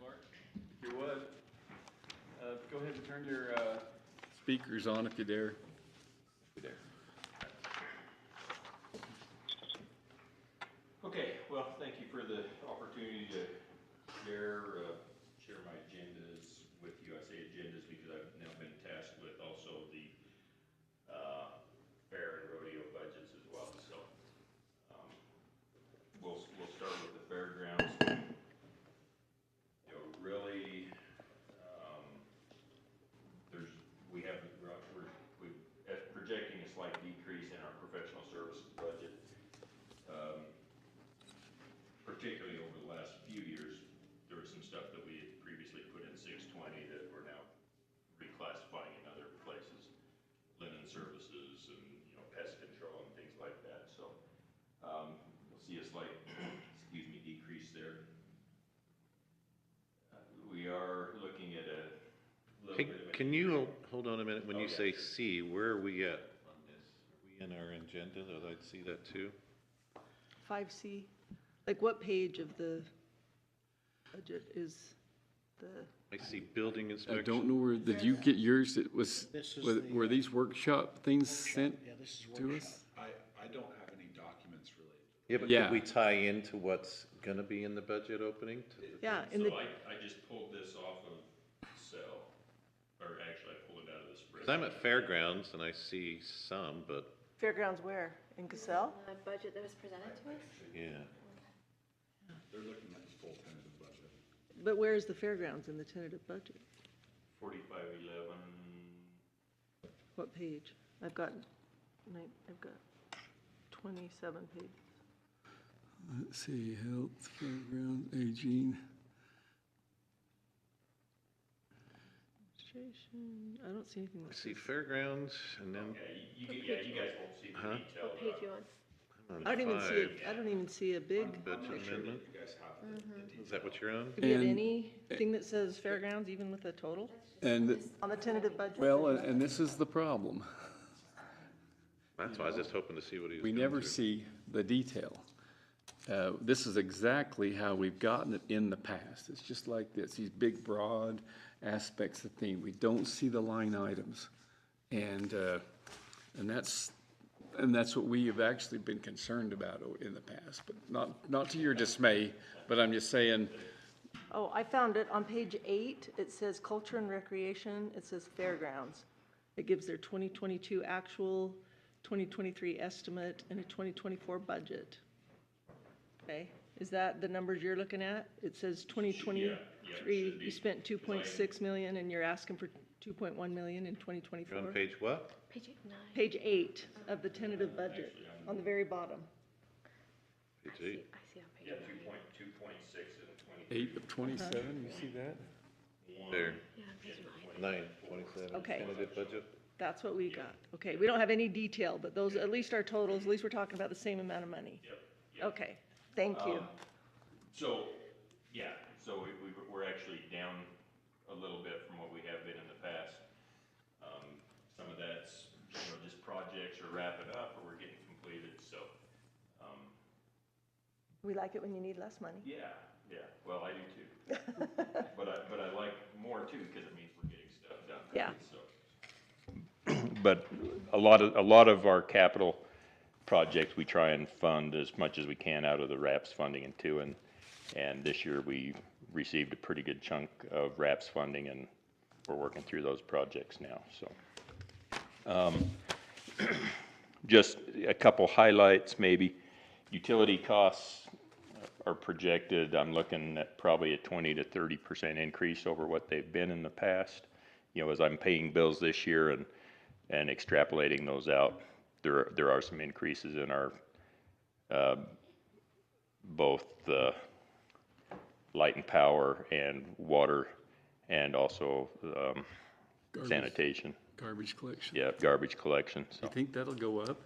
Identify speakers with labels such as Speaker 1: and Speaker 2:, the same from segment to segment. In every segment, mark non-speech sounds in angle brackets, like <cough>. Speaker 1: Mark, if you would, uh, go ahead and turn your uh, speakers on if you dare. If you dare. Okay, well, thank you for the opportunity to share, uh, share my agendas with you. I say agendas because I've now been tasked with also the uh, fair and rodeo budgets as well, so. um, We'll, we'll start with the fairgrounds. You know, really, um, there's, we have, we're, we're we're projecting a slight decrease in our professional services budget. Um, particularly over the last few years, there was some stuff that we had previously put in six twenty that we're now reclassifying in other places, linen services and, you know, pest control and things like that, so, um, you'll see a slight, <clears throat> excuse me, decrease there. Uh, We are looking at a little
Speaker 2: Hey,
Speaker 1: bit of a.
Speaker 2: Can you, hold- hold on a minute, when
Speaker 1: Oh,
Speaker 2: you
Speaker 1: yeah,
Speaker 2: say
Speaker 1: sure.
Speaker 2: C, where are we at on this? Are we in our agenda, that I'd see that too?
Speaker 3: 5C? Like what page of the budget is the,
Speaker 2: I see building
Speaker 4: I don't
Speaker 2: inspection.
Speaker 4: know where, did you get yours? It was,
Speaker 5: This is
Speaker 4: were-
Speaker 5: the,
Speaker 4: were
Speaker 5: uh,
Speaker 4: these workshop things sent
Speaker 5: Yeah, this is
Speaker 4: to
Speaker 5: workshop.
Speaker 4: us?
Speaker 6: I, I don't have any documents related.
Speaker 2: Yeah, but
Speaker 4: Yeah.
Speaker 2: could we tie into what's gonna be in the budget opening? to the-
Speaker 3: yeah, in the,
Speaker 1: So I, I just pulled this off of Excel, or actually I pulled it out of the spreadsheet.
Speaker 2: 'Cause I'm at fairgrounds and I see some, but,
Speaker 7: Fairgrounds where? In Cassell?
Speaker 8: The budget that was presented to us?
Speaker 2: yeah.
Speaker 6: They're looking at the full tentative budget.
Speaker 3: but where is the fairgrounds in the tentative budget?
Speaker 1: Forty-five eleven,
Speaker 3: What page? I've got, nine- I've got 27 pages.
Speaker 4: Let's see, health, fairgrounds, aging.
Speaker 3: Administration, I don't see anything
Speaker 2: I
Speaker 3: that
Speaker 2: see
Speaker 3: says,
Speaker 2: fairgrounds and then
Speaker 1: yeah, you- you, get- yeah, you guys won't see
Speaker 2: Huh?
Speaker 1: the detail.
Speaker 8: What page
Speaker 1: uh,
Speaker 8: you on?
Speaker 2: I'm on
Speaker 3: I don't even see,
Speaker 2: five,
Speaker 3: it. I don't even see a big,
Speaker 2: budget
Speaker 6: I'm not sure that
Speaker 2: amendment.
Speaker 6: you guys have the-
Speaker 3: Mm-hmm.
Speaker 6: the
Speaker 2: Is that what you're on?
Speaker 3: do we have
Speaker 4: And-
Speaker 3: anything that says fairgrounds even with a total?
Speaker 4: And,
Speaker 3: On the tentative budget?
Speaker 4: well, uh, and- and this is the problem.
Speaker 2: That's why I was just hoping to see what he was.
Speaker 4: We
Speaker 2: going
Speaker 4: never
Speaker 2: to.
Speaker 4: see the detail. Uh, This is exactly how we've gotten it in the past. It's just like this, these big, broad aspects of theme. We don't see the line items. And, uh, and that's, and that's what we have actually been concerned about o- in the past, but not, not to your dismay, but I'm just saying,
Speaker 3: Oh, I found it. On page eight, it says culture and recreation, it says fairgrounds. It gives their 2022 actual, 2023 estimate, and a 2024 budget. Okay, is that the numbers you're looking at? It says 2023,
Speaker 1: be.
Speaker 3: you spent 2.6 million, and you're asking for 2.1 million in 2024?
Speaker 2: You're on page what?
Speaker 8: Page eight, nine.
Speaker 3: Page eight of the tentative budget, on the very bottom.
Speaker 2: Page eight.
Speaker 8: I see on page
Speaker 1: Yeah,
Speaker 8: nine.
Speaker 1: two point, two point six and twenty-three.
Speaker 4: eight of twenty-seven, you see that?
Speaker 2: There,
Speaker 8: Yeah, on page nine.
Speaker 2: nine, twenty-seven,
Speaker 3: Okay.
Speaker 2: tentative budget.
Speaker 3: That's what we got. Okay, we don't have any detail, but those, at least our totals, at least we're talking about the same amount of money.
Speaker 1: Yep, yep.
Speaker 3: Okay, thank you.
Speaker 1: Um, So, yeah, so we, we, we're actually down a little bit from what we have been in the past. Um, some of that's, you know, just projects are wrapping up or we're getting completed, so, um,
Speaker 3: We like it when you need less money.
Speaker 1: Yeah, yeah, well, I do too. But I, but I like more too, because it means we're getting stuff done.
Speaker 3: Yeah.
Speaker 1: so. But a lot of, a lot of our capital projects, we try and fund as much as we can out of the RAPS funding and two, and, and this year we received a pretty good chunk of RAPS funding, and we're working through those projects now, so. Um, <clears throat> Just a couple highlights, maybe. Utility costs are projected, I'm looking at probably a 20 to 30% increase over what they've been in the past. You know, as I'm paying bills this year and, and extrapolating those out, there, there are some increases in our, uh, both the light and power and water and also um,
Speaker 4: Garbage-
Speaker 1: sanitation,
Speaker 4: Garbage collection.
Speaker 1: yeah, garbage collection, so.
Speaker 4: You think that'll go up?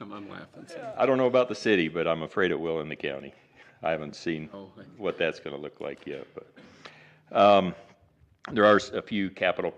Speaker 4: I'm, I'm laughing.
Speaker 1: I don't know about the city, but I'm afraid it will in the county. I haven't seen
Speaker 4: Oh, I-
Speaker 1: what that's gonna look like yet, but, um, there are s- a few capital